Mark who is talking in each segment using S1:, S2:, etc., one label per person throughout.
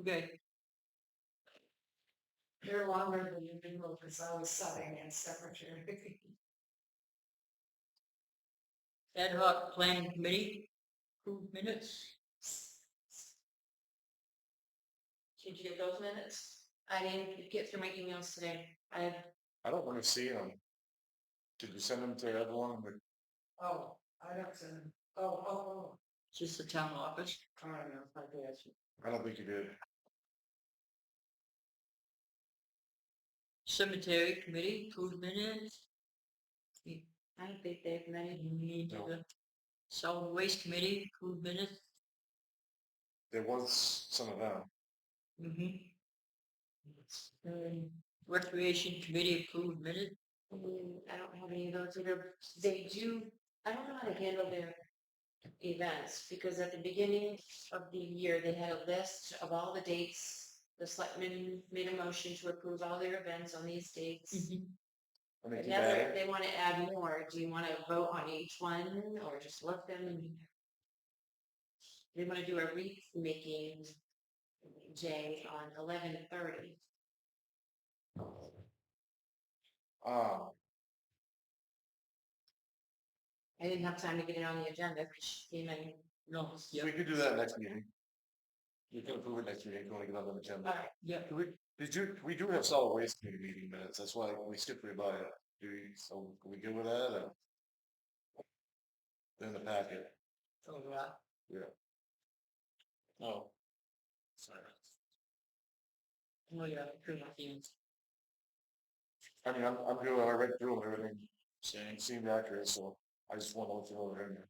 S1: Okay,
S2: They're longer than usual because I was subbing and secretary.
S1: ad hoc planning committee, approved minutes.
S3: Did you get those minutes? I didn't get through my emails today. I,
S4: I don't wanna see them. Did you send them to everyone? But
S2: Oh, I don't send, them. oh, oh,
S1: It's just the town office.
S2: oh, I don't know, I guess.
S4: I don't think you did.
S1: Cemetery committee, approved minutes. The
S3: I don't think they've many.
S1: need
S4: No.
S1: the solid waste committee, approved minutes.
S4: There was some of them.
S1: Mhm. Um, Recreation committee, approved minutes.
S3: Mm, I don't have any of those either. They do, I don't know how to handle their events because at the beginning of the year, they had a list of all the dates. The selectmen made a motion to approve all their events on these
S1: Mm-hmm.
S3: dates.
S4: I mean,
S3: But
S4: you
S3: now
S4: had
S3: they're-
S4: it.
S3: they want to add more. Do you want to vote on each one or just let them? They want to do a wreath making day on eleven thirty.
S4: um,
S3: I didn't have time to get it on the agenda because she came in.
S1: No,
S4: we
S1: yeah,
S4: could do that next meeting. You can approve it next meeting, if you wanna get on the agenda.
S3: Alright,
S1: yeah.
S4: Do we- Did you, we do have solid waste committee meeting minutes, that's why we skipped right by it. Do we, so can we good with that or? They're In the packet,
S1: Oh, wow.
S4: oh. Sorry.
S1: Oh, yeah, pretty much, yeah.
S4: I mean, I'm, I'm good, I read through 'em, everything, seemed, seemed accurate, so I just wanna look through it. and-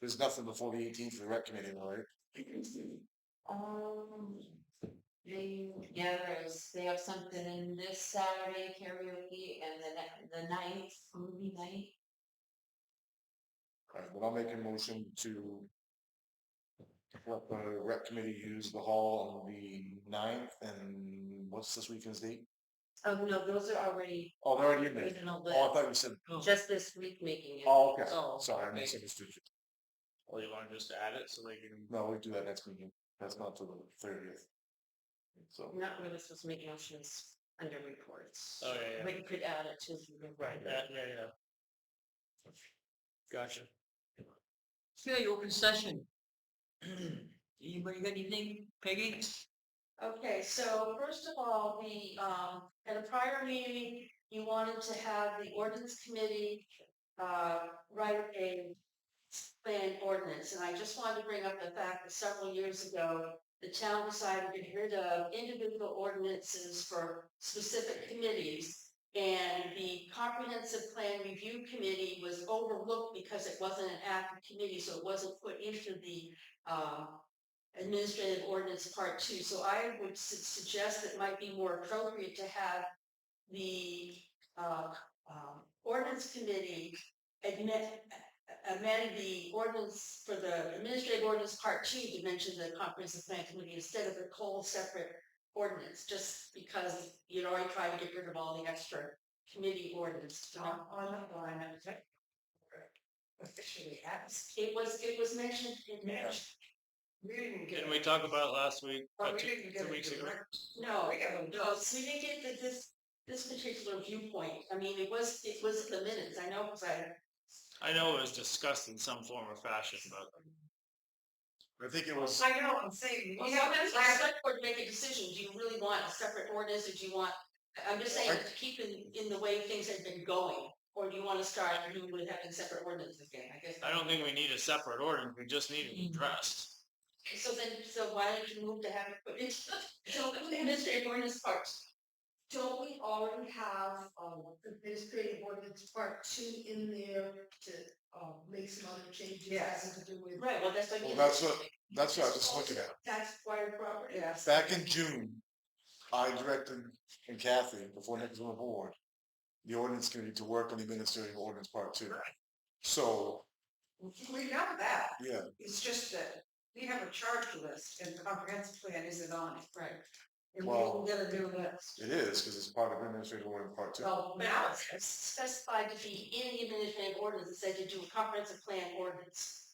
S4: There's nothing before the eighteenth for the rec committee, though, right?
S3: Um, they, yeah, there's, they have something in this Saturday karaoke and the, ne- the ninth, movie night.
S4: Alright, but I'll make a motion to let the rec committee use the hall on the ninth and what's this weekend's date?
S3: Oh, no, those are already,
S4: Oh, they're already in there.
S1: Original
S4: Oh, I
S1: list.
S4: thought you said,
S1: Oh,
S3: just this week making it.
S4: oh, okay,
S1: Oh,
S4: sorry, I
S1: okay.
S4: misunderstood you.
S5: Or you wanna just add it so they can,
S4: No, we do that next meeting, that's not till the thirtieth. So.
S3: We're Not really supposed to make motions under reports.
S5: Oh, yeah, yeah.
S3: But you could add it to.
S5: right, yeah, yeah, yeah. Gotcha.
S1: Okay, open session. Anybody got anything? Peggy?
S3: Okay, so first of all, the, um, at a prior meeting, you wanted to have the ordinance committee, uh, write a plan ordinance, and I just wanted to bring up the fact that several years ago, the town decided to get rid of individual ordinances for specific committees. And the comprehensive plan review committee was overlooked because it wasn't an active committee, so it wasn't put into the, um, administrative ordinance part two, so I would su- suggest that it might be more appropriate to have the, uh, um, ordinance committee admit, amend the ordinance for the administrative ordinance part two to mention the comprehensive plan committee instead of the whole separate ordinance, just because you'd already tried to get rid of all the extra committee ordinance
S2: On,
S3: talk.
S2: on the line, I was like, officially asked,
S3: It was, it was mentioned in
S2: Yeah. we didn't get.
S5: Didn't
S2: it.
S5: we talk about it last week?
S2: But
S5: uh,
S2: we
S5: two-
S2: didn't
S5: two
S2: get
S5: weeks
S2: it
S5: ago?
S2: direct.
S3: No, um,
S2: We haven't
S3: no, so we didn't get the, this, this particular viewpoint. I mean, it was, it was in the minutes, I know, because I,
S5: I know it was discussed in some form or fashion, but
S4: I think it was,
S2: I know, I'm saying,
S3: well,
S2: we haven't
S3: sometimes the
S2: had
S3: select board make a decision, do you really want a separate ordinance, or do you want, I- I'm just saying,
S4: Right.
S3: to keep in, in the way things have been going, or do you want to start new with having separate ordinances again, I guess.
S5: I don't think we need a separate ordinance, we just need
S1: Mm.
S5: it addressed.
S3: So then, so why don't you move to have it put into, so the administrative ordinance part?
S2: Don't we already have, um, administrative ordinance part two in there to, uh, make some other changes having to do with?
S3: Right, well, that's what. I
S4: well,
S3: mean.
S4: that's what, that's what I was just looking at.
S2: Tax acquired property. Yes.
S4: Back in June, I directed, and Kathy, before Nick was on the board, the ordinance committee to work on the administrative ordinance part two. So,
S2: We know that.
S4: yeah,
S2: It's just that we have a charge list and the comprehensive plan isn't on it. Right. And we
S4: Well-
S2: don't get a new list.
S4: it is, because it's part of administrative ordinance part two.
S3: Well, now it's specified to be in the administrative ordinance, it said to do a comprehensive plan ordinance.